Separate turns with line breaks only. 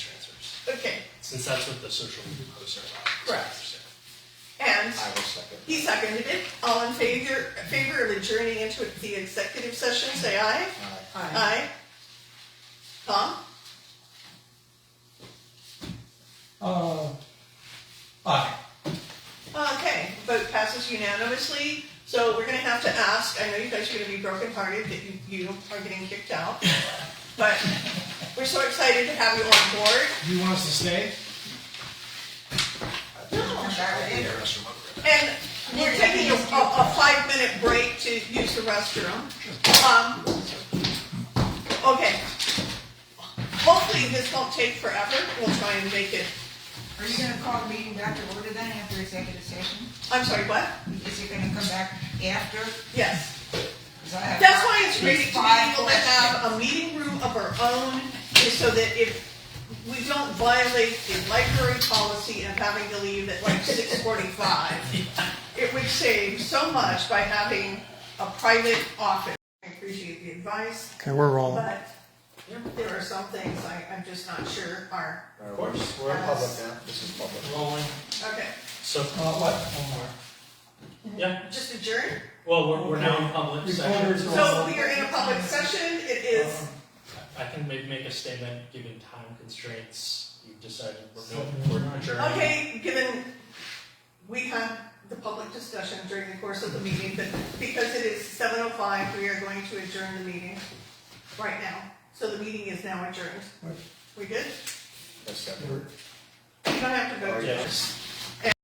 Okay,
since that's what the social media posts are about.
Correct. and
I will second.
he seconded it. All in favor, favor of adjourning into the executive session, say aye.
Aye.
Aye. Tom?
Uh, aye.
Okay, vote passes unanimously, so we're gonna have to ask, I know you guys are gonna be brokenhearted that you, you are getting kicked out, but we're so excited to have you on board.
Do you want us to stay?
Yeah, restroom over there.
And we're taking a, a five-minute break to use the restroom. Um, Okay. Hopefully this won't take forever, we'll try and make it,
Are you gonna call the meeting back to order then after executive session?
I'm sorry, what?
Is it gonna come back after?
Yes.
'Cause I have-
That's why it's great to be
Five
able to have a meeting room of our own, is so that if we don't violate the library policy of having to leave at like six forty-five, it would save so much by having a private office. I appreciate the advice,
Okay, we're rolling.
but there are some things I, I'm just not sure are,
Of course. We're in public now, this is public.
Rolling.
okay,
So,
Uh, what? One more.
yeah,
just adjourn.
well, we're, we're now in public session.
Reporters
So we are in a public session, it is,
I can maybe make a statement, given time constraints, you've decided we're no,
So-
we're adjourning.
Okay, given, we had the public discussion during the course of the meeting, but because it is seven oh five, we are going to adjourn the meeting right now. So the meeting is now adjourned.
Right.
We good?
Let's second.
We're-
You don't have to vote.
Yes.